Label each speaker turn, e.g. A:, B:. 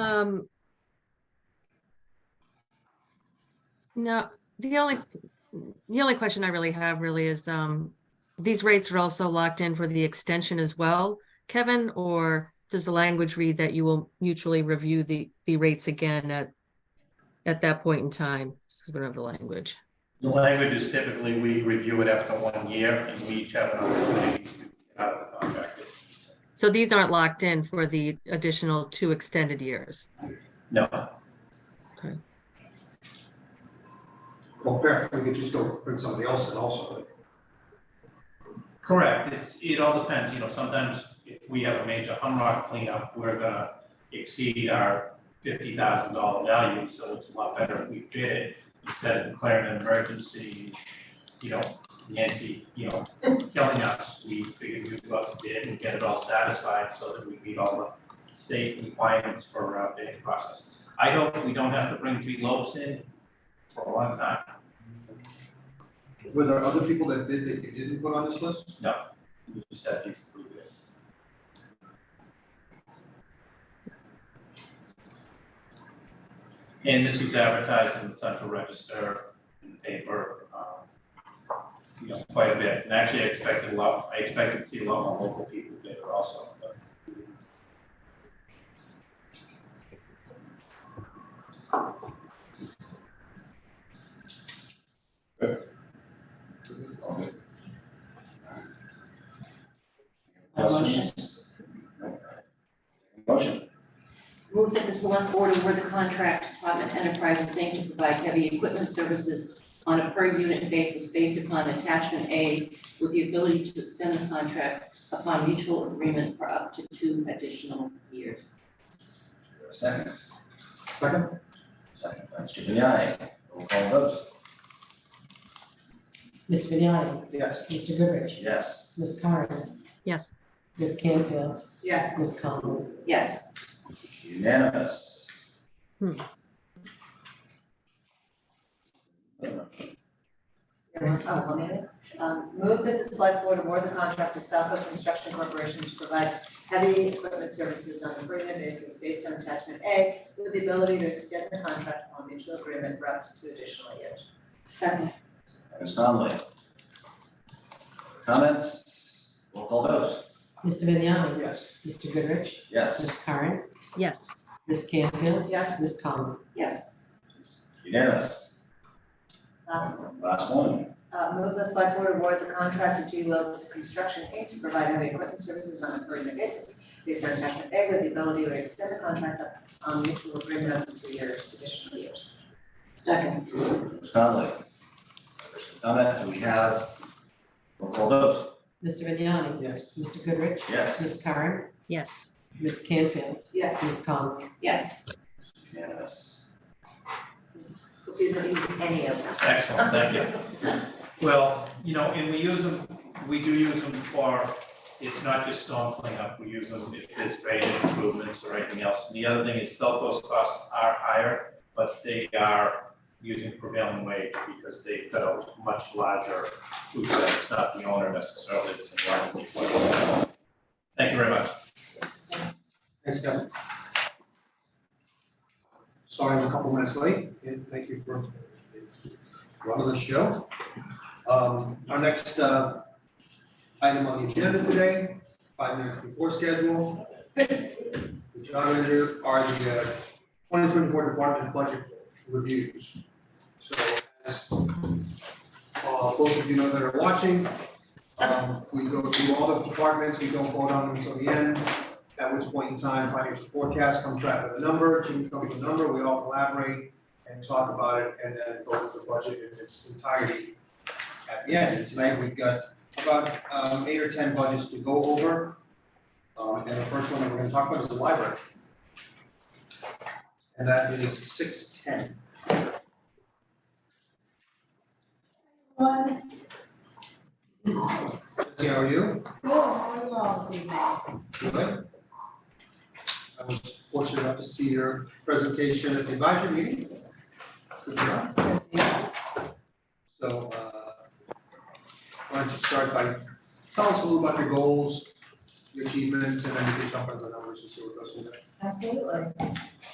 A: Um. No, the only, the only question I really have really is, um, these rates are also locked in for the extension as well, Kevin? Or does the language read that you will mutually review the, the rates again at, at that point in time? This is one of the language.
B: The language is typically, we review it after one year, and we each have an opportunity to get out of the contract.
A: So these aren't locked in for the additional two extended years.
B: No,
C: Well, Beth, we could just go put somebody else in also.
B: correct, it's, it all depends, you know, sometimes if we have a major Humrock cleanup, we're gonna exceed our fifty thousand dollar value, so it's a lot better if we did it instead of declaring an emergency, you know, Nancy, you know, killing us, we figured we'd go out to bid and get it all satisfied so that we meet all the state requirements for our bidding process. I hope we don't have to bring G Lopes in for a long time.
C: Were there other people that bid that you didn't put on this list?
B: We just have these three bids. And this was advertised in the Central Register, in the paper, um, you know, quite a bit. And actually, I expected a lot, I expected to see a lot more local people bid it also, but.
D: Questions?
E: Motion.
D: Move that the select board award the contract to Department Enterprises Inc. to provide heavy equipment services on a per unit basis based upon attachment A with the ability to extend the contract upon mutual agreement for up to two additional years.
E: Second.
C: Second,
E: Second by Mr. Vignani. Roll call vote.
F: Mr. Vignani,
C: yes.
F: Mr. Goodrich,
E: Yes.
F: Ms. Carron,
A: Yes,
F: Ms. Canfield,
D: Yes.
F: Ms. Conlon.
D: Yes.
E: Unanimous.
A: Hmm.
G: Oh, one minute. Um, move that the select board award the contract to Southwood Construction Corporation to provide heavy equipment services on a agreement basis based on attachment A with the ability to extend the contract upon mutual agreement for up to two additional years.
D: Second.
E: Ms. Conley. Comments? Roll call vote.
F: Mr. Vignani,
C: Yes.
F: Mr. Goodrich,
E: Yes.
F: Ms. Curran,
A: yes,
F: Ms. Canfield,
G: Yes.
F: Ms. Conlon.
D: Yes.
E: Unanimous.
G: Last one.
E: Last one.
G: Um, Uh, move the select board award the contract to G Lopes Construction Inc. to provide heavy equipment services on a agreement basis based on attachment A with the ability to extend the contract on mutual agreement up to two years, additional years.
D: Second.
E: Ms. Conley. Comment? Do we have? Roll call vote.
F: Mr. Vignani,
C: Yes.
F: Mr. Goodrich,
E: Yes.
F: Ms. Curran,
A: yes.
F: Ms. Canfield,
D: Yes.
F: Ms. Conlon.
D: Yes.
E: Unanimous.
G: Hope you don't use any of them.
B: Excellent, thank you. Well, you know, and we use them, we do use them for, it's not just storm cleanup, we use them if there's drainage improvements or anything else. And the other thing is cell phone costs are higher, but they are using prevailing wage because they've got a much larger food shed. It's not the owner necessarily, it's in line with the employer. Thank you very much.
C: Thanks, Kevin. Sorry, I'm a couple minutes late, and thank you for running the show. Um, our next, uh, item on the agenda today, five minutes before schedule. The job manager are the, uh, twenty twenty-four department budget reviews. So, as, uh, both of you know that are watching, um, we go through all the departments, we don't vote on them until the end at which point in time, financial forecast comes back with a number, Jimmy comes with a number, we all collaborate and talk about it, and then vote the budget in its entirety at the end. And tonight, we've got about um, eight or ten budgets to go over. Um, And the first one that we're gonna talk about is the library. And that is six ten.
G: One,
C: Lindsay, how are you? Good. I was fortunate enough to see your presentation at the advisory meeting. Good job. So, uh, why don't you start by, tell us a little about your goals, your achievements, and then we can jump into the numbers and see what goes from there.
G: Absolutely.